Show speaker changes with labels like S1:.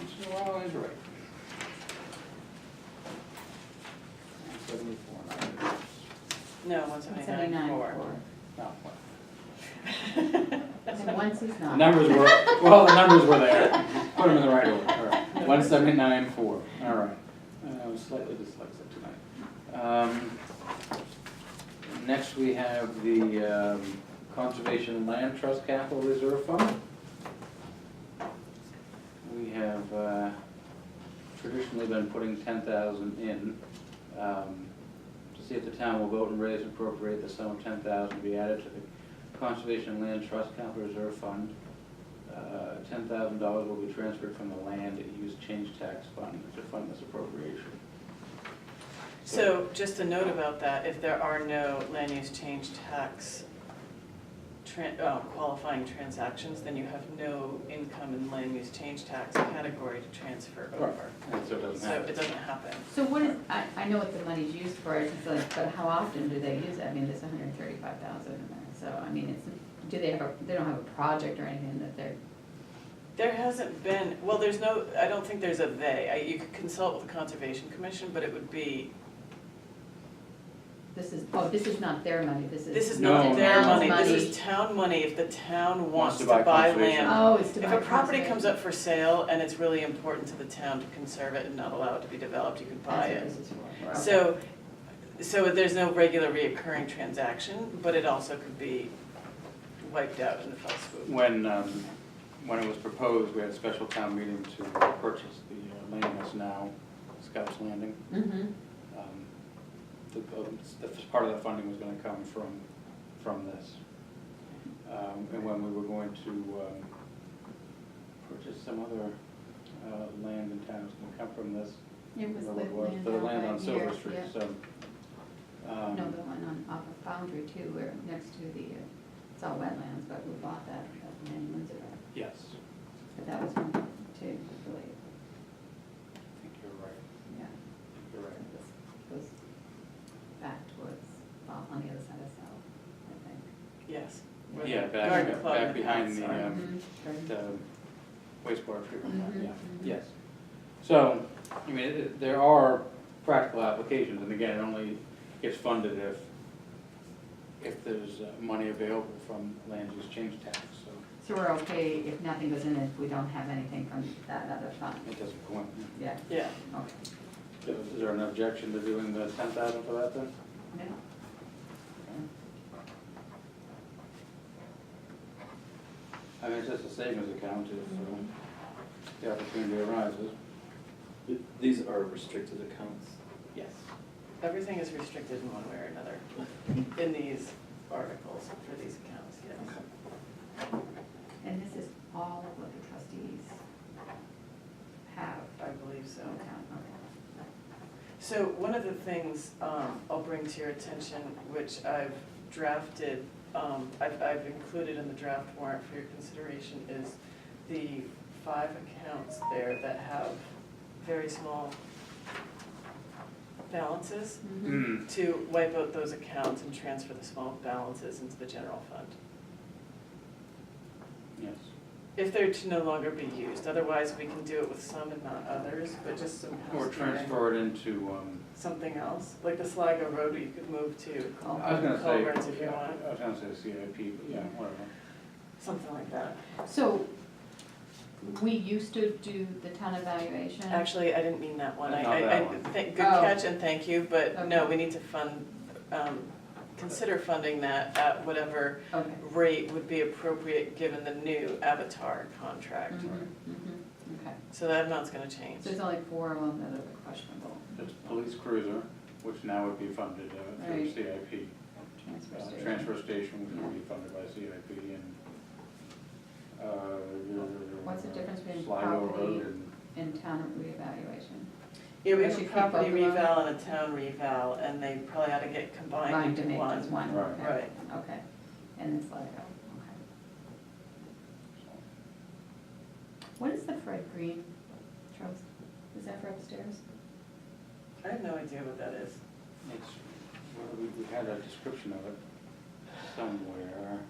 S1: is right. Seventy-four, nine,
S2: No, one seventy-nine, four.
S1: no, what?
S3: And once he's
S1: The
S3: not.
S1: numbers were, well, the numbers were there, put them in the right order, all right, one seventy-nine, four, all right. Uh, I was slightly dyslexic tonight. Um, Next, we have the um, Conservation Land Trust Capital Reserve Fund. We have uh, traditionally been putting ten thousand in, um, to see if the town will vote and raise and appropriate the sum of ten thousand to be added to the Conservation Land Trust Capital Reserve Fund. Uh, Ten thousand dollars will be transferred from the land use change tax fund to fund this appropriation.
S2: So just a note about that, if there are no land use change tax tran, oh, qualifying transactions, then you have no income in land use change tax category to transfer over.
S1: And so it doesn't
S2: So it
S1: happen.
S2: doesn't happen.
S3: So what is, I, I know what the money's used for, it's just like, but how often do they use it? I mean, there's hundred and thirty-five thousand in there, so, I mean, it's, do they have a, they don't have a project or anything that they're,
S2: There hasn't been, well, there's no, I don't think there's a they. I- You could consult with the Conservation Commission, but it would be,
S3: this is, oh, this is not their money, this is.
S2: this is
S1: No,
S2: not their
S1: no.
S2: money, this is town money. If the town wants to
S1: buy
S2: buy
S1: conservation.
S2: land,
S3: Oh, it's to
S2: If
S3: buy
S2: a property
S3: conservation.
S2: comes up for sale and it's really important to the town to conserve it and not allow it to be developed, you could buy
S3: That's what
S2: it.
S3: this is for.
S1: Right.
S2: So, so there's no regular reoccurring transaction, but it also could be wiped out in the fell swoop.
S1: When, um, when it was proposed, we had a special town meeting to purchase the uh, land that's now Scouts Landing.
S3: Mm-hmm,
S1: Um, The, uh, the the part of that funding was gonna come from, from this. Um, And when we were going to um, purchase some other uh, land in town, it's gonna come from this.
S3: it was the
S1: well, it was
S3: land.
S1: The
S3: out
S1: land
S3: right
S1: on
S3: here,
S1: Silver Street,
S3: yeah.
S1: so. um,
S3: No, the one on, off of Foundry too, where next to the, uh, it's all wetlands, but we bought that, uh, that land in Windsor,
S1: Yes,
S3: but that was from, too, really,
S1: I think you're right, I
S3: yeah.
S1: think you're right.
S3: This goes back towards, well, on the other side of South,
S2: Yes. where the
S1: Yeah,
S2: garden
S1: back,
S2: club
S1: back
S2: and the
S1: behind the,
S2: house are.
S3: I
S1: um,
S3: think.
S1: the wastewater treatment plant,
S3: Mhm,
S1: yeah,
S3: mhm.
S1: yes. So, I mean, it- there are practical applications, and again, it only gets funded if, if there's uh, money available from land use change tax, so
S3: So we're okay if nothing goes in, if we don't have anything from that other fund,
S1: it doesn't go in.
S3: yeah,
S2: Yeah,
S3: okay.
S1: Is there an objection to doing the ten thousand for that then?
S3: No,
S1: I mean, it's just a savings account if um, the opportunity arises.
S4: Th- These are restricted accounts.
S1: Yes.
S2: everything is restricted in one way or another in these articles for these accounts, yes.
S3: and this is all of what the trustees have,
S2: I believe so.
S3: so, okay.
S2: So one of the things um, I'll bring to your attention, which I've drafted, um, I've I've included in the draft warrant for your consideration, is the five accounts there that have very small balances,
S3: Mhm.
S1: Hmm,
S2: to wipe out those accounts and transfer the small balances into the general fund,
S1: yes.
S2: if they're to no longer be used. Otherwise, we can do it with some and not others, but just some
S1: Or
S2: housekeeping.
S1: transfer it into, um,
S2: something else, like the Sligo Road, you could move to
S3: I
S1: I was gonna say,
S2: Culverts if you want,
S1: I was gonna say CIP, but yeah, whatever.
S2: something like that.
S3: So, we used to do the town evaluation.
S2: Actually, I didn't mean that one, I,
S1: Not
S2: I,
S1: that
S2: I,
S1: one.
S2: thank- good
S3: Oh.
S2: catch and thank you, but no,
S3: Okay.
S2: we need to fund, um, consider funding that at whatever
S3: Okay.
S2: rate would be appropriate given the new Avatar contract.
S3: Mhm, mhm, Okay,
S2: So that amount's gonna change.
S3: so it's only four of them that are questionable,
S1: It's police cruiser, which now would be funded uh, through
S3: Right.
S1: CIP.
S3: transfer
S1: Uh,
S3: station.
S1: Transfer station would be funded by CIP and. uh,
S3: What's the difference between
S1: Sligo
S3: property-
S1: Road and,
S3: And town reevaluation.
S2: Yeah, we
S3: I
S2: have a
S3: should keep
S2: property
S3: both of them.
S2: reval and a town reval, and they probably ought to get combined
S3: Combined
S2: into
S3: to make just
S2: one.
S3: one,
S1: Right.
S3: okay, okay. And it's Sligo, okay. What is the Fred Green Trust? Is that for upstairs?
S2: I have no idea what that is.
S1: it's, well, we, we had a description of it somewhere.